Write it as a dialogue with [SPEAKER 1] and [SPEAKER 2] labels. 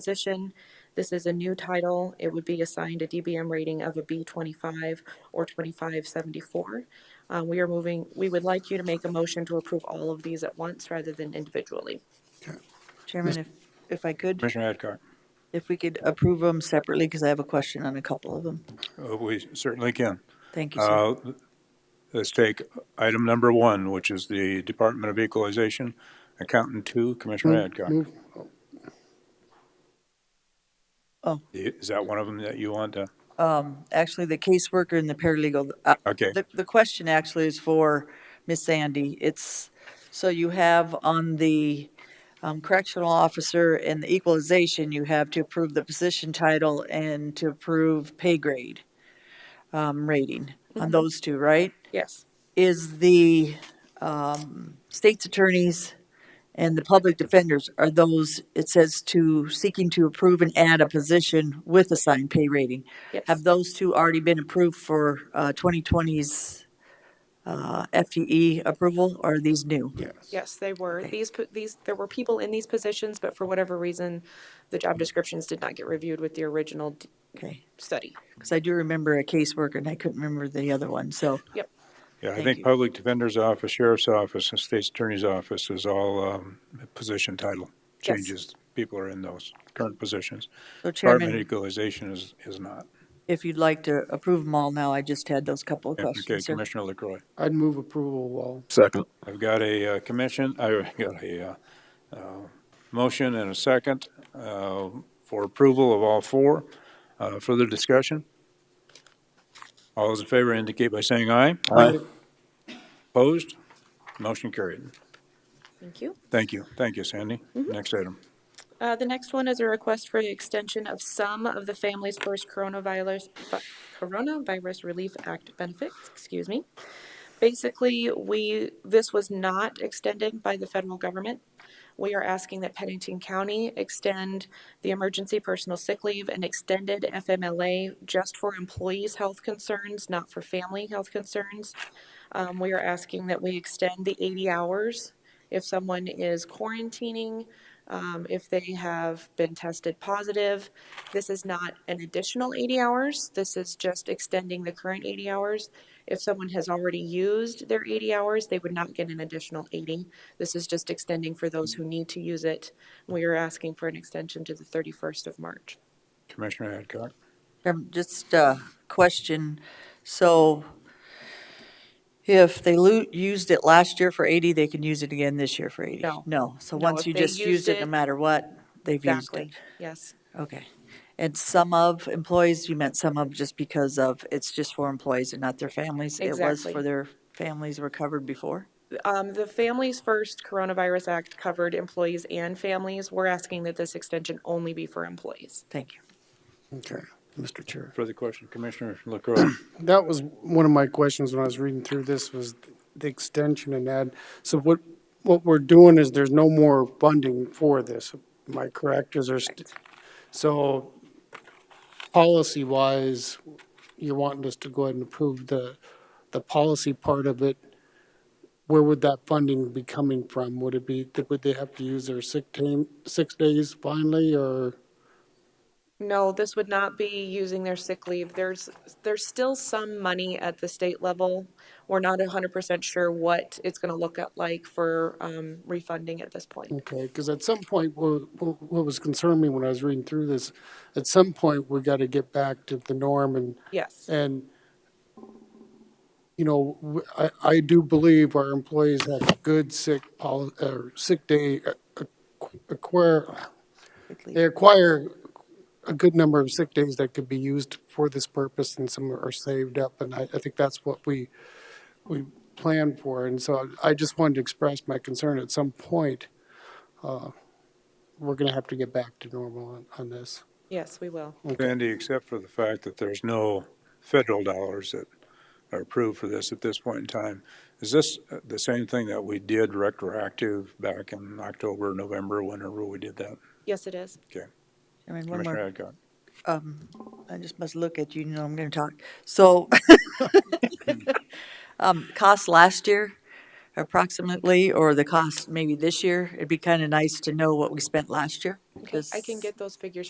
[SPEAKER 1] position. This is a new title. It would be assigned a DBM rating of a B25 or 2574. Uh, We are moving, we would like you to make a motion to approve all of these at once rather than individually.
[SPEAKER 2] Okay.
[SPEAKER 3] Chairman, if, if I could,
[SPEAKER 4] Commissioner Adcock.
[SPEAKER 3] if we could approve them separately, because I have a question on a couple of them.
[SPEAKER 4] Uh, We certainly can.
[SPEAKER 3] Thank you, sir.
[SPEAKER 4] Uh, Let's take item number one, which is the Department of Equalization, Accountant Two, Commissioner Adcock.
[SPEAKER 2] Move,
[SPEAKER 3] Oh.
[SPEAKER 4] Is that one of them that you want to?
[SPEAKER 3] Actually, the caseworker and the paralegal, uh,
[SPEAKER 4] Okay.
[SPEAKER 3] the, the question actually is for Miss Sandy. It's, so you have on the um, correctional officer and the equalization, you have to approve the position title and to approve pay grade um, rating on those two, right?
[SPEAKER 1] Yes.
[SPEAKER 3] is the um, state's attorneys and the public defenders are those, it says to, seeking to approve and add a position with assigned pay rating.
[SPEAKER 1] Yes.
[SPEAKER 3] Have those two already been approved for uh, 2020's uh, FTE approval, or are these new?
[SPEAKER 2] yes.
[SPEAKER 1] Yes, they were. These, po- these, there were people in these positions, but for whatever reason, the job descriptions did not get reviewed with the original d-
[SPEAKER 3] Okay,
[SPEAKER 1] study.
[SPEAKER 3] because I do remember a caseworker, and I couldn't remember the other one, so,
[SPEAKER 1] Yep.
[SPEAKER 4] Yeah, I
[SPEAKER 3] Thank
[SPEAKER 4] think
[SPEAKER 3] you.
[SPEAKER 4] Public Defender's Office, Sheriff's Office, and State's Attorney's Office is all um, position title
[SPEAKER 1] Yes.
[SPEAKER 4] changes. People are in those current positions.
[SPEAKER 3] so
[SPEAKER 4] Department of
[SPEAKER 3] Chairman,
[SPEAKER 4] Equalization is, is not.
[SPEAKER 3] if you'd like to approve them all now, I just had those couple of
[SPEAKER 4] Okay,
[SPEAKER 3] questions, sir.
[SPEAKER 4] Commissioner LaCroy.
[SPEAKER 2] I'd move approval all.
[SPEAKER 5] Second.
[SPEAKER 4] I've got a uh, commission, I've got a uh, uh, motion and a second uh, for approval of all four. Uh, Further discussion? All those in favor indicate by saying aye.
[SPEAKER 5] Aye.
[SPEAKER 4] Opposed? Motion carried.
[SPEAKER 1] Thank you.
[SPEAKER 4] Thank you. Thank you, Sandy.
[SPEAKER 5] Mm-hmm.
[SPEAKER 4] Next item.
[SPEAKER 1] Uh, the next one is a request for the extension of some of the Families First Coronavirus, Coronavirus Relief Act benefits, excuse me. Basically, we, this was not extended by the federal government. We are asking that Pennington County extend the emergency personal sick leave and extended FMLA just for employees' health concerns, not for family health concerns. Um, we are asking that we extend the 80 hours if someone is quarantining, um, if they have been tested positive. This is not an additional 80 hours. This is just extending the current 80 hours. If someone has already used their 80 hours, they would not get an additional 80. This is just extending for those who need to use it. We are asking for an extension to the 31st of March.
[SPEAKER 4] Commissioner Adcock.
[SPEAKER 3] Um, Just a question. So if they lo- used it last year for 80, they can use it again this year for 80?
[SPEAKER 1] No.
[SPEAKER 3] so
[SPEAKER 1] No,
[SPEAKER 3] once
[SPEAKER 1] if
[SPEAKER 3] you
[SPEAKER 1] they
[SPEAKER 3] just use
[SPEAKER 1] used
[SPEAKER 3] it, no
[SPEAKER 1] it-
[SPEAKER 3] matter what, they've used it?
[SPEAKER 1] Exactly. Yes.
[SPEAKER 3] Okay. And some of employees, you meant some of just because of, it's just for employees and not their families? It was
[SPEAKER 1] Exactly.
[SPEAKER 3] for their families were covered before?
[SPEAKER 1] Um, the Families First Coronavirus Act covered employees and families. We're asking that this extension only be for employees.
[SPEAKER 3] Thank you.
[SPEAKER 2] Okay, Mr. Chair.
[SPEAKER 4] Further question, Commissioner LaCroy.
[SPEAKER 2] That was one of my questions when I was reading through this was the extension and add. So what, what we're doing is there's no more funding for this. Am I correct? Is there, st- so policy wise, you're wanting us to go ahead and approve the, the policy part of it. Where would that funding be coming from? Would it be, would they have to use their sick time, six days finally or?
[SPEAKER 1] No, this would not be using their sick leave. There's, there's still some money at the state level. We're not hundred percent sure what it's gonna look at like for, um, refunding at this point.
[SPEAKER 2] Okay, because at some point, wha- wha- what was concerning me when I was reading through this, at some point, we got to get back to the norm and,
[SPEAKER 1] Yes,
[SPEAKER 2] and, you know, w- I, I do believe our employees have good sick poli, or sick day, uh, ac- acquire, they acquire a good number of sick days that could be used for this purpose and some are saved up. And I, I think that's what we, we planned for. And so I just wanted to express my concern at some point, uh, we're going to have to get back to normal on, on this.
[SPEAKER 1] yes, we will.
[SPEAKER 4] Sandy, except for the fact that there's no federal dollars that are approved for this at this point in time, is this uh, the same thing that we did retroactive back in October, November, whenever we did that?
[SPEAKER 1] Yes, it is.
[SPEAKER 4] Okay.
[SPEAKER 3] Chairman, one
[SPEAKER 4] Commissioner
[SPEAKER 3] more,
[SPEAKER 4] Adcock.
[SPEAKER 3] I just must look at you, you know I'm going to talk. So, um, cost last year, approximately, or the cost maybe this year. It'd be kind of nice to know what we spent last year.
[SPEAKER 1] Okay, I can
[SPEAKER 3] because-
[SPEAKER 1] get those figures